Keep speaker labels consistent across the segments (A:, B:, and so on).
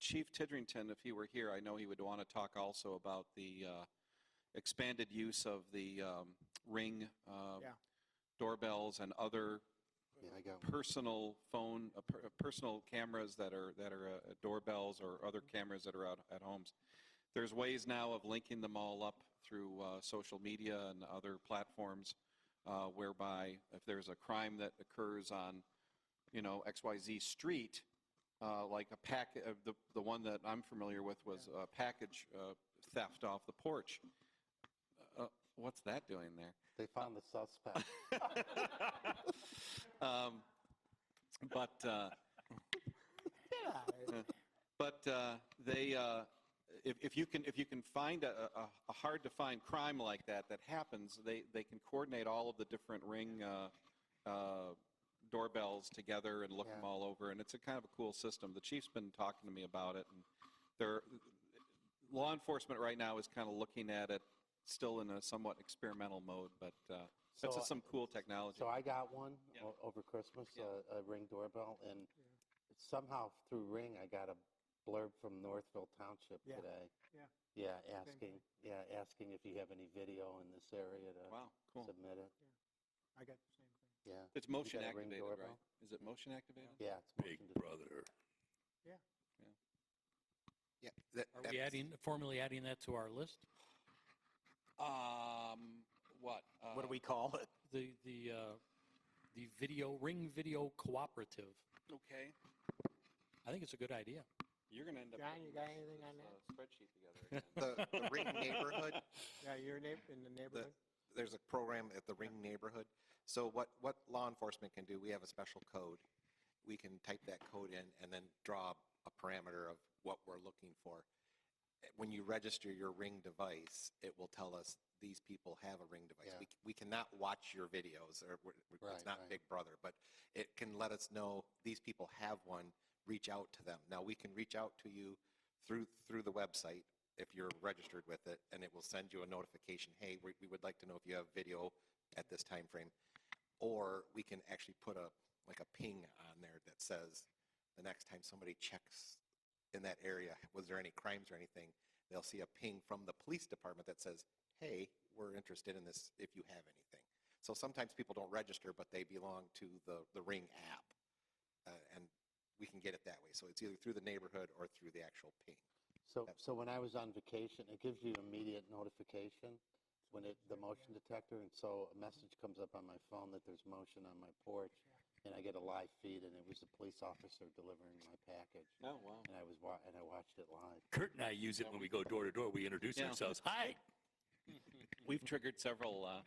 A: Chief Tidrington, if he were here, I know he would want to talk also about the uh, expanded use of the um, Ring uh,
B: Yeah.
A: doorbells and other
C: Yeah, I got one.
A: personal phone, uh, per- uh, personal cameras that are, that are uh, doorbells or other cameras that are out at homes. There's ways now of linking them all up through uh, social media and other platforms uh, whereby if there's a crime that occurs on, you know, XYZ street, uh, like a pack, uh, the, the one that I'm familiar with was a package uh, theft off the porch. Uh, What's that doing there?
C: They found the suspect.
A: Um, But, uh, But uh, they, uh, if, if you can, if you can find a, a, a hard-to-find crime like that that happens, they, they can coordinate all of the different ring uh, uh, doorbells together and look them
C: Yeah.
A: all over, and it's a kind of a cool system. The chief's been talking to me about it, and they're, law enforcement right now is kind of looking at it still in a somewhat experimental mode, but uh, that's
C: So-
A: just some cool technology.
C: So I got one
A: Yeah.
C: o- over Christmas, uh,
A: Yeah.
C: a, a Ring doorbell, and somehow through Ring, I got a blurb from Northville Township
B: Yeah.
C: today.
B: Yeah.
C: Yeah,
B: thing.
C: asking, yeah, asking if you have any video in this area to
A: Wow, cool.
C: submit it.
B: I got the same thing.
C: Yeah,
A: It's motion
C: got a Ring
A: activated, right?
C: doorbell?
A: Is it motion activated?
C: yeah. it's
D: Big
C: motion to-
D: brother.
E: Yeah, that,
F: Are
E: that-
F: we adding, formally adding that to our list?
A: Um, what?
G: What
A: uh,
G: do we call it?
F: The, the, uh, the video, Ring Video Cooperative.
A: Okay.
F: I think it's a good idea.
A: You're going to end up.
B: John,
A: putting
B: you got
A: this-
B: anything on
A: this,
B: that?
A: uh, Spreadsheet together again.
E: the, the Ring neighborhood,
B: Yeah, your neighbor, in the neighborhood?
E: there's a program at the Ring neighborhood. So what, what law enforcement can do, we have a special code. We can type that code in and then draw a parameter of what we're looking for. When you register your Ring device, it will tell us these people have a Ring device.
C: Yeah.
E: We, c- we cannot watch your videos or we're- we're-
C: Right,
E: it's not
C: right.
E: Big Brother, but it can let us know these people have one, reach out to them. Now, we can reach out to you through, through the website if you're registered with it, and it will send you a notification, hey, we, we would like to know if you have video at this time frame. Or we can actually put a, like a ping on there that says, the next time somebody checks in that area, was there any crimes or anything? They'll see a ping from the police department that says, hey, we're interested in this if you have anything. So sometimes people don't register, but they belong to the, the Ring app. Uh, and we can get it that way. So it's either through the neighborhood or through the actual ping.
C: So,
E: Yep.
C: so when I was on vacation, it gives you immediate notification when it, the motion detector, and so a message comes up on my phone that there's motion on my porch, and I get a live feed, and it was a police officer delivering my package,
A: Oh, wow.
C: and I was wa, and I watched it live.
D: Kurt and I use it when we go door to door. We introduce
A: Yeah.
D: ourselves. Hi.
A: We've triggered several uh,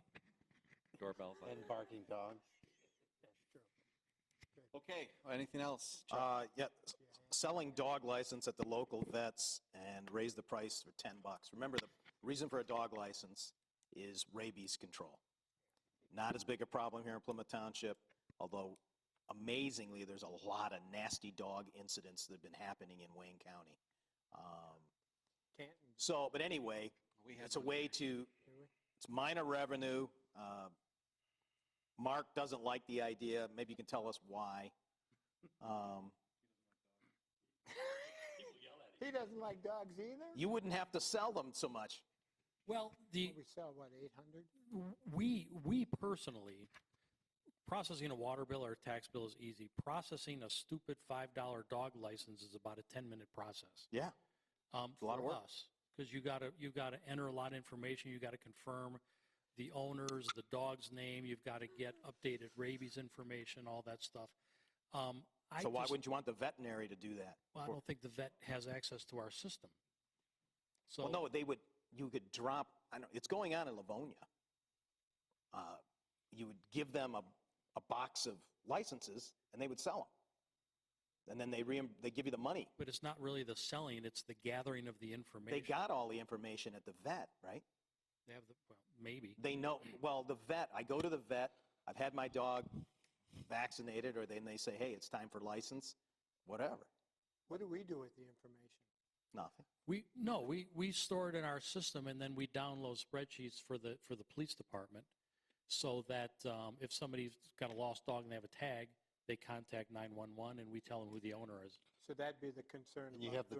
A: doorbells. like
C: And barking dogs.
A: that. Okay, anything else? Chuck?
G: Uh, yeah, s- selling dog license at the local vets and raise the price for 10 bucks. Remember, the reason for a dog license is rabies control. Not as big a problem here in Plymouth Township, although amazingly, there's a lot of nasty dog incidents that have been happening in Wayne County. Um,
B: Canton,
G: So, but anyway,
A: We had
G: it's a
A: one
G: way
A: there.
G: to,
B: do we?
G: it's minor revenue. Uh, Mark doesn't like the idea. Maybe you can tell us why. Um,
B: He doesn't like dogs either?
G: You wouldn't have to sell them so much.
F: Well, the,
B: Well, We sell, what, 800?
F: we, we personally, processing a water bill or a tax bill is easy. Processing a stupid $5 dog license is about a 10-minute process.
G: Yeah.
F: Um,
G: a lot of work.
F: Because you gotta, you gotta enter a lot of information, you gotta confirm the owners, the dog's name, you've gotta get updated rabies information, all that stuff. Um, I
G: So why
F: just-
G: wouldn't you want the veterinary to do that?
F: well, I
G: Or-
F: don't think the vet has access to our system. So,
G: Well, no, they would, you could drop, I know, it's going on in Livonia. Uh, You would give them a, a box of licenses and they would sell them. And then they reim, they give you the money.
F: but it's not really the selling, it's the gathering of the information.
G: They got all the information at the vet, right?
F: They have the, well, maybe.
G: They know, well, the vet, I go to the vet, I've had my dog vaccinated, or then they say, hey, it's time for license, whatever,
B: What do we do with the information?
G: nothing.
F: We, no, we, we store it in our system and then we download spreadsheets for the, for the police department so that um, if somebody's got a lost dog and they have a tag, they contact 911 and we tell them who the owner is.
B: So that'd be the concern
C: And you
B: about
C: have the